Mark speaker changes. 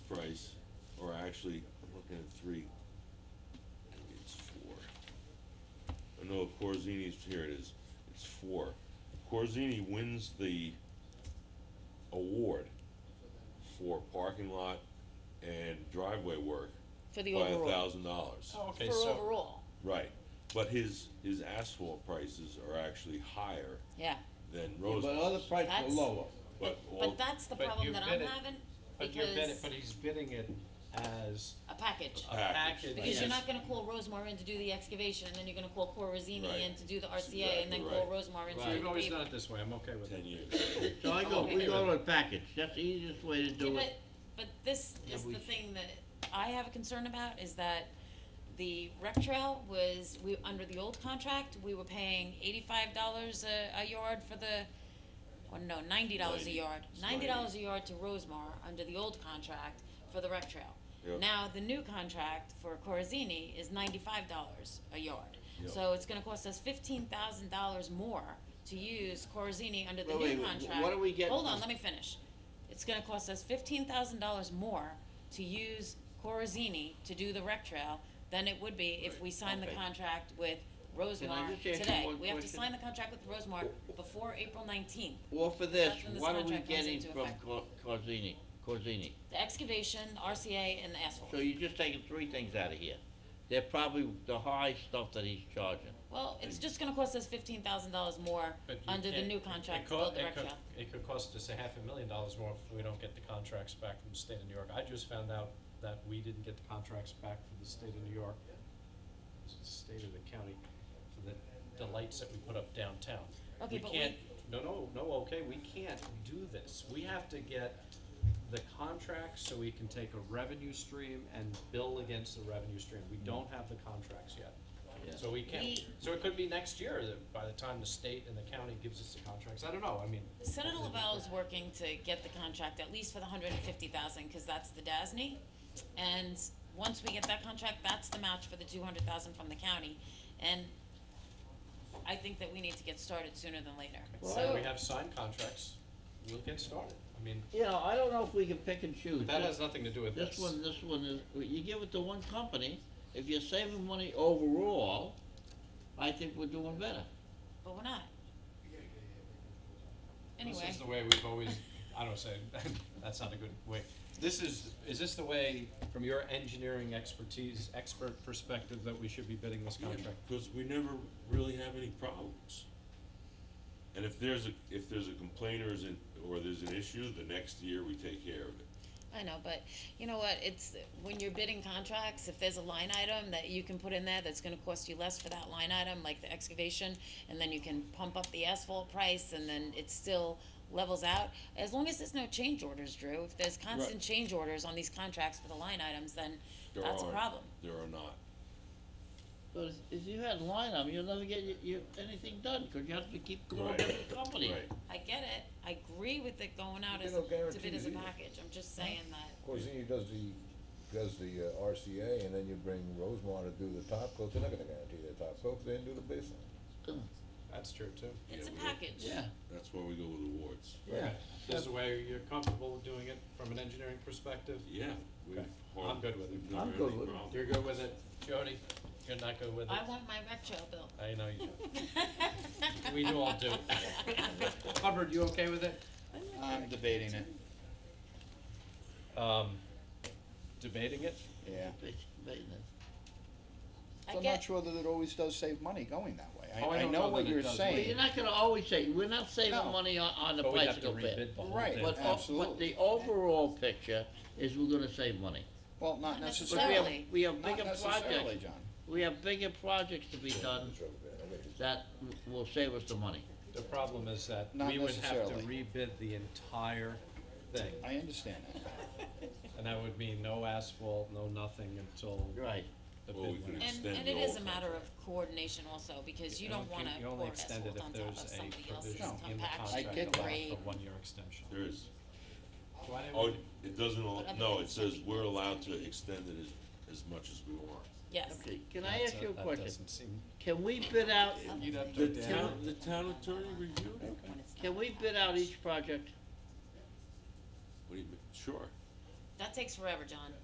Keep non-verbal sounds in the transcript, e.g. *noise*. Speaker 1: or actually, I'm looking at three. Maybe it's four. Oh, No, Corzini's, here it is, it's four. Corzini wins the award for parking lot and driveway work
Speaker 2: for the
Speaker 1: by a
Speaker 2: overall,
Speaker 1: thousand dollars.
Speaker 3: Oh,
Speaker 2: for
Speaker 3: okay, so,
Speaker 2: overall,
Speaker 1: Right, but his, his asphalt prices are actually higher
Speaker 2: yeah.
Speaker 1: than
Speaker 4: But other
Speaker 1: Rose's.
Speaker 4: prices are
Speaker 2: That's-
Speaker 4: lower.
Speaker 1: But, well,
Speaker 2: But that's the
Speaker 3: but
Speaker 2: problem
Speaker 3: you
Speaker 2: that I'm
Speaker 3: bid it-
Speaker 2: having,
Speaker 3: but you're bidding,
Speaker 2: because
Speaker 3: but he's bidding it as
Speaker 2: a package.
Speaker 3: a
Speaker 1: Package.
Speaker 3: package.
Speaker 2: Because you're not
Speaker 3: yes.
Speaker 2: gonna call Rosemar in to do the excavation, and then you're gonna call
Speaker 1: Right.
Speaker 2: Corazini in to do the
Speaker 1: That's
Speaker 2: RCA, and then
Speaker 1: exactly
Speaker 2: call Rosemar in to do the
Speaker 3: Right, we've always
Speaker 2: paving.
Speaker 3: done it this way, I'm okay with
Speaker 1: ten
Speaker 3: it.
Speaker 1: years.
Speaker 4: So I go,
Speaker 2: Okay.
Speaker 4: we go to a package, that's the easiest way to
Speaker 2: Yeah,
Speaker 4: do it.
Speaker 2: But, but this
Speaker 3: Yeah,
Speaker 2: is
Speaker 3: we-
Speaker 2: the thing that I have a concern about, is that the rec trail was, we, under the old contract, we were paying eighty-five dollars a, a yard for the, or no, ninety dollars a
Speaker 1: Ninety.
Speaker 2: yard.
Speaker 1: It's
Speaker 2: Ninety dollars
Speaker 1: ninety.
Speaker 2: a yard to Rosemar, under the old contract, for the rec trail.
Speaker 1: Yep.
Speaker 2: Now, the new contract for Corazini is ninety-five dollars a yard.
Speaker 1: Yep.
Speaker 2: So it's gonna cost us fifteen thousand dollars more to use Corazini under the
Speaker 4: Wait, wait,
Speaker 2: new
Speaker 4: wh-
Speaker 2: contract.
Speaker 4: what are we getting
Speaker 2: Hold on,
Speaker 4: for-
Speaker 2: let me finish. It's gonna cost us fifteen thousand dollars more to use Corazini to do the rec trail than it would be if we signed the
Speaker 4: Okay.
Speaker 2: contract with Rosemar
Speaker 4: just ask you
Speaker 2: today.
Speaker 4: one
Speaker 2: We have to
Speaker 4: question?
Speaker 2: sign the contract with Rosemar before April nineteenth.
Speaker 4: Or for this,
Speaker 2: That's when this
Speaker 4: what are we
Speaker 2: contract comes
Speaker 4: getting
Speaker 2: into
Speaker 4: from
Speaker 2: effect.
Speaker 4: Cor- Corzini, Corzini?
Speaker 2: The excavation, RCA, and the asphalt.
Speaker 4: So you're just taking three things out of here. They're probably the high stuff that he's charging.
Speaker 2: Well, it's just gonna cost us fifteen thousand dollars more
Speaker 3: But you
Speaker 2: under the
Speaker 3: can't-
Speaker 2: new
Speaker 3: it- it
Speaker 2: contract to
Speaker 3: co-
Speaker 2: build the
Speaker 3: it
Speaker 2: rec
Speaker 3: could-
Speaker 2: trail.
Speaker 3: It could cost us a half a million dollars more if we don't get the contracts back from the state of New York. I just found out that we didn't get the contracts back from the state of New York. It's the state of the county for the, the lights that we put up downtown.
Speaker 2: Okay, but we-
Speaker 3: can't- No, no, no, okay, we can't do this. We have to get the contracts so we can take a revenue stream and bill against the revenue stream. We don't have the contracts yet.
Speaker 4: Yeah.
Speaker 3: So we can't,
Speaker 2: We-
Speaker 3: so it could be next year that by the time the state and the county gives us the contracts, I don't know, I mean.
Speaker 2: Senator Lavelle is working to get the contract at least for the hundred and fifty thousand, cause that's the DASNY. And once we get that contract, that's the match for the two hundred thousand from the county. And I think that we need to get started sooner than later.
Speaker 3: So we have signed contracts, we'll get started, I mean,
Speaker 4: You know, I don't know if we can pick and choose.
Speaker 3: that has nothing to do with this.
Speaker 4: This one, this one is, you give it to one company, if you're saving money overall, I think we're doing better.
Speaker 2: But we're not. Anyway.
Speaker 3: This is the way we've always, I don't say, *laughs* that's not a good way. This is, is this the way, from your engineering expertise, expert perspective, that we should be bidding this contract?
Speaker 1: Because we never really have any problems. And if there's a, if there's a complaint or is an, or there's an issue, the next year we take care of it.
Speaker 2: I know, but you know what, it's, when you're bidding contracts, if there's a line item that you can put in there that's gonna cost you less for that line item, like the excavation, and then you can pump up the asphalt price, and then it still levels out, as long as there's no change orders, Drew, if there's constant change orders on these contracts for the line items, then
Speaker 1: There
Speaker 2: that's a
Speaker 1: aren't-
Speaker 2: problem.
Speaker 1: There are not.
Speaker 4: But if- if you had line item, you'll never get your, your, anything done, cause you have to keep going
Speaker 1: Right.
Speaker 4: with the company.
Speaker 1: Right.
Speaker 2: I get it, I agree with it going out
Speaker 5: You
Speaker 2: as,
Speaker 5: know,
Speaker 2: to bid as a
Speaker 5: guarantees either.
Speaker 2: package, I'm just saying that,
Speaker 5: Corzini does the, does the uh, RCA, and then you bring Rosemont to do the top coat, they're not gonna guarantee their top coat, they didn't do the baseline.
Speaker 3: That's true too.
Speaker 2: it's a
Speaker 1: we-
Speaker 2: package.
Speaker 4: Yeah,
Speaker 1: That's why we go with awards.
Speaker 4: yeah.
Speaker 3: This is the way you're comfortable with doing it from an engineering perspective?
Speaker 1: Yeah, we've
Speaker 3: Okay.
Speaker 1: hard-
Speaker 3: I'm good with it.
Speaker 1: we've never
Speaker 4: I'm
Speaker 1: had
Speaker 4: good
Speaker 1: any
Speaker 4: with it.
Speaker 1: problem.
Speaker 3: You're good with it, Jody? You're not good with it?
Speaker 2: I want my rec trail bill.
Speaker 3: I know you do. We do all do. Hubbard, you okay with it?
Speaker 6: I'm debating it,
Speaker 3: Um, debating it?
Speaker 6: yeah.
Speaker 4: Maintenance.
Speaker 2: I
Speaker 6: I'm not
Speaker 2: get,
Speaker 6: sure that it always does save money going that way.
Speaker 3: Oh, I
Speaker 6: I, I
Speaker 3: don't
Speaker 6: know
Speaker 3: know
Speaker 6: what
Speaker 3: that it
Speaker 6: you're
Speaker 3: does.
Speaker 4: Well, you're
Speaker 6: saying,
Speaker 4: not gonna always say, we're not saving
Speaker 6: No.
Speaker 4: money on, on the
Speaker 3: But we'd have to
Speaker 4: bicycle
Speaker 3: rebid
Speaker 4: bid.
Speaker 3: the whole
Speaker 6: Right.
Speaker 3: thing.
Speaker 4: But, o- but
Speaker 6: Absolutely.
Speaker 4: the overall picture is we're gonna save money.
Speaker 6: well,
Speaker 2: Not
Speaker 4: But
Speaker 6: not
Speaker 4: we have,
Speaker 6: necessarily,
Speaker 2: Necessarily.
Speaker 4: we have
Speaker 6: not
Speaker 4: bigger
Speaker 6: necessarily,
Speaker 4: projects,
Speaker 6: John.
Speaker 4: we have bigger projects to be done
Speaker 5: Trouble, man, I gotta-
Speaker 4: that w- will save us the money.
Speaker 3: The problem is that
Speaker 6: Not
Speaker 3: we would have to
Speaker 6: necessarily.
Speaker 3: rebid the entire thing,
Speaker 6: I understand that.
Speaker 3: and that would mean no asphalt, no nothing until
Speaker 4: Right.
Speaker 3: the
Speaker 1: Well, we
Speaker 3: bid
Speaker 1: could
Speaker 3: went out.
Speaker 2: And,
Speaker 1: extend
Speaker 2: and
Speaker 1: the
Speaker 2: it is a
Speaker 1: old
Speaker 2: matter of coordination also, because you
Speaker 3: And
Speaker 2: don't
Speaker 3: can-
Speaker 2: wanna
Speaker 3: you only
Speaker 2: pour
Speaker 3: extend it
Speaker 2: asphalt
Speaker 3: if
Speaker 2: on top of
Speaker 3: there's a
Speaker 2: somebody else's
Speaker 3: provision in the
Speaker 2: compaction
Speaker 3: contract
Speaker 6: get
Speaker 2: or
Speaker 6: that.
Speaker 2: grade.
Speaker 3: For one-year extension.
Speaker 1: There is,
Speaker 3: Why didn't
Speaker 1: oh,
Speaker 3: we-
Speaker 1: it doesn't, al- no, it says we're allowed to extend it as, as much as we want.
Speaker 2: Yes,
Speaker 4: Okay, can I ask
Speaker 3: That's
Speaker 4: you a
Speaker 3: that
Speaker 4: question?
Speaker 3: doesn't seem-
Speaker 4: Can we bid out,
Speaker 3: You'd have
Speaker 1: The
Speaker 3: to,
Speaker 1: town, the town attorney reviewed it?
Speaker 2: when it's
Speaker 4: can
Speaker 2: not
Speaker 4: we
Speaker 2: like that.
Speaker 4: bid out each project?
Speaker 1: What do you mean, sure.
Speaker 2: That takes forever, John.